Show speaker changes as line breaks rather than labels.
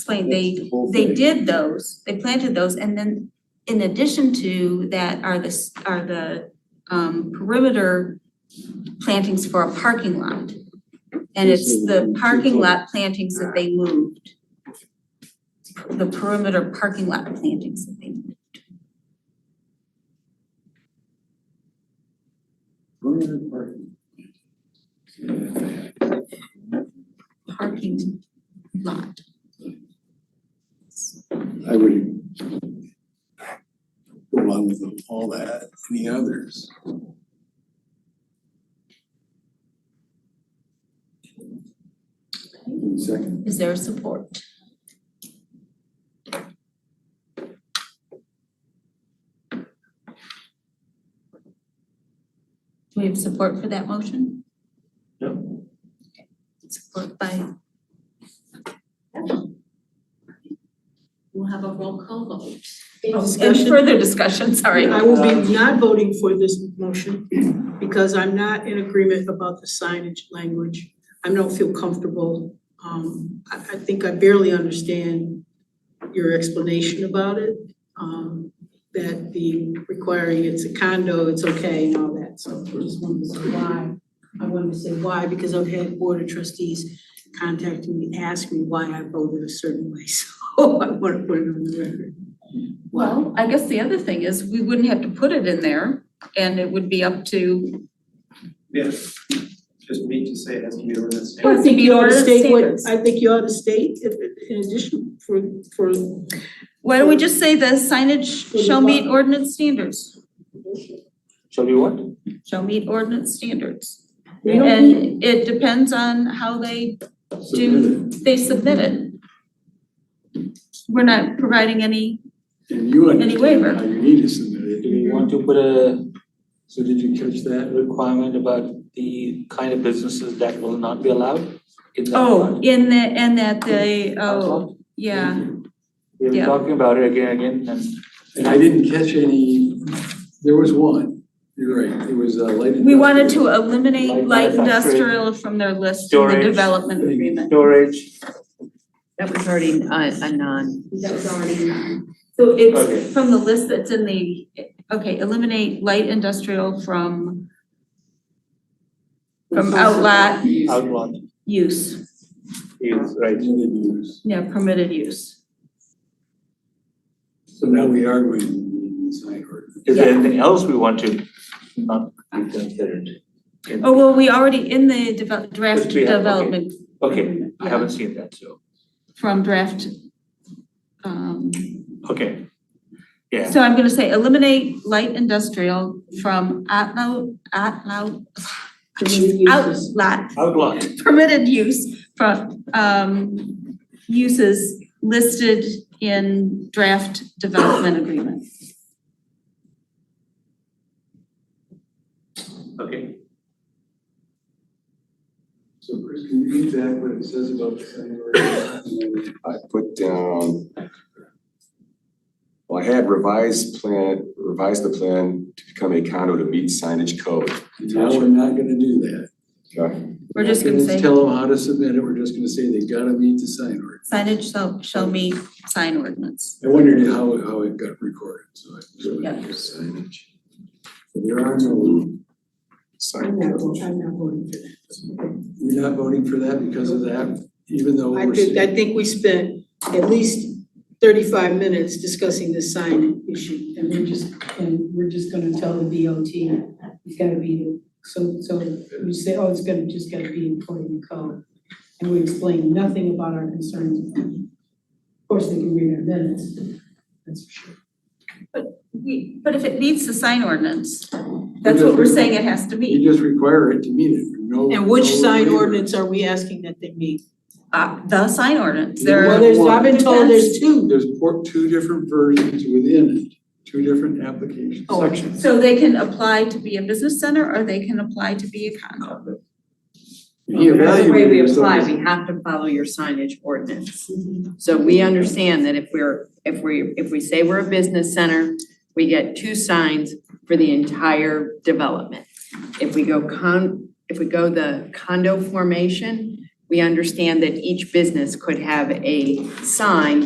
explain, they,
The whole
they
thing.
did those, they planted those, and then in addition to that are the, s- are the um perimeter plantings for a parking lot. And it's the parking lot plantings that they moved. The perimeter parking lot plantings that they moved.
Permanent parking.
parking lot.
I would go along with all that, any others? Second.
Is there support? Do we have support for that motion?
Yep.
Support by. We'll have a roll call vote.
Any
And
discussion?
further discussion, Uh, sorry.
I will be not voting for this motion because I'm not in agreement about the signage language. I don't feel comfortable. Um, I, I think I barely understand your explanation about it. Um, that the requiring it's a condo, it's okay and all that. So I just wanted to say why. I wanted to say why because I've had board of trustees contact me, ask me why I voted a certain way. So I want to put it on the record.
Well, I guess the other thing is, we wouldn't have to put it in there, and it would be up to.
Yes, just me to say it has to be ordinance.
Well,
I think
Be
you ought to
honest
state what,
standards.
I think you ought to state if, in addition for, for,
Why don't we just say the signage shall meet ordinance standards,
Shall we what?
shall meet ordinance standards.
we don't need-
And it depends on how they do, they submit it. We're not providing any,
And you
waiver.
understand how you need to submit
Do
it.
we want to put a, so did you catch that requirement about the kind of businesses that will not be allowed in that
oh,
part?
in the, and that they, oh, yeah,
We were
yeah.
talking about it again, again, and
And I didn't catch any, there was one, you're right, it was a light
we wanted to
industrial.
eliminate light
Light manufacturing.
industrial from their list in the
Storage.
development agreement.
storage,
That was already uh, a non.
That was already done. So it's
Okay.
from the list that's in the, okay, eliminate light industrial from from outlet
outlawed
use,
is right.
Permitted use.
yeah, permitted use.
So now we are going to need sign ordinance.
Is
Yeah.
there anything else we want to not be considered? in-
Oh, well, we already in the develop, draft
Yes, we have, okay.
development
Okay, I
Yeah.
haven't seen that, so,
from draft. Um,
okay. Yeah,
so I'm gonna say eliminate light industrial from outlaw, outlaw, outlet,
outlawed,
permitted use from, um, uses listed in draft development agreement.
okay,
So Chris, can you read back what it says about the sign ordinance?
I put down. Well, I had revised plan, revised the plan to become a condo to meet signage code.
Now, we're not gonna do that.
Okay.
We're just gonna
Not
say
tell them how to submit it, we're just gonna say they gotta meet the sign ordinance.
signage shall, shall meet sign ordinance.
I wondered how, how it got recorded, so I.
Yeah.
Signage. So There are no,
I'm
Sign
not,
code.
vo- I'm not voting for that.
you're not voting for that because of that, even though
I
we're
think,
saying.
I think we spent at least thirty-five minutes discussing the sign issue. And we're just, and we're just gonna tell the DOT, it's gotta be, so, so you say, oh, it's gonna, just gotta be employed in code. And we explain nothing about our concerns. Of course, they can read our minutes, that's for sure.
We, but if it meets the sign ordinance, that's what we're saying it has to meet.
You just require it to meet it, no.
And which
no
sign
waiver.
ordinance are we asking that they meet?
Uh, the sign ordinance,
Well,
there,
there's, I've been told there's two.
There's four, two different versions within it, two different application
Oh.
sections.
so they can apply to be a business center or they can apply to be a condo.
He
That's the way we
evaluated some
apply,
of
we have to follow your signage ordinance. So we understand that if we're, if we, if we say we're a business center, we get two signs for the entire development. If we go con, if we go the condo formation, we understand that each business could have a sign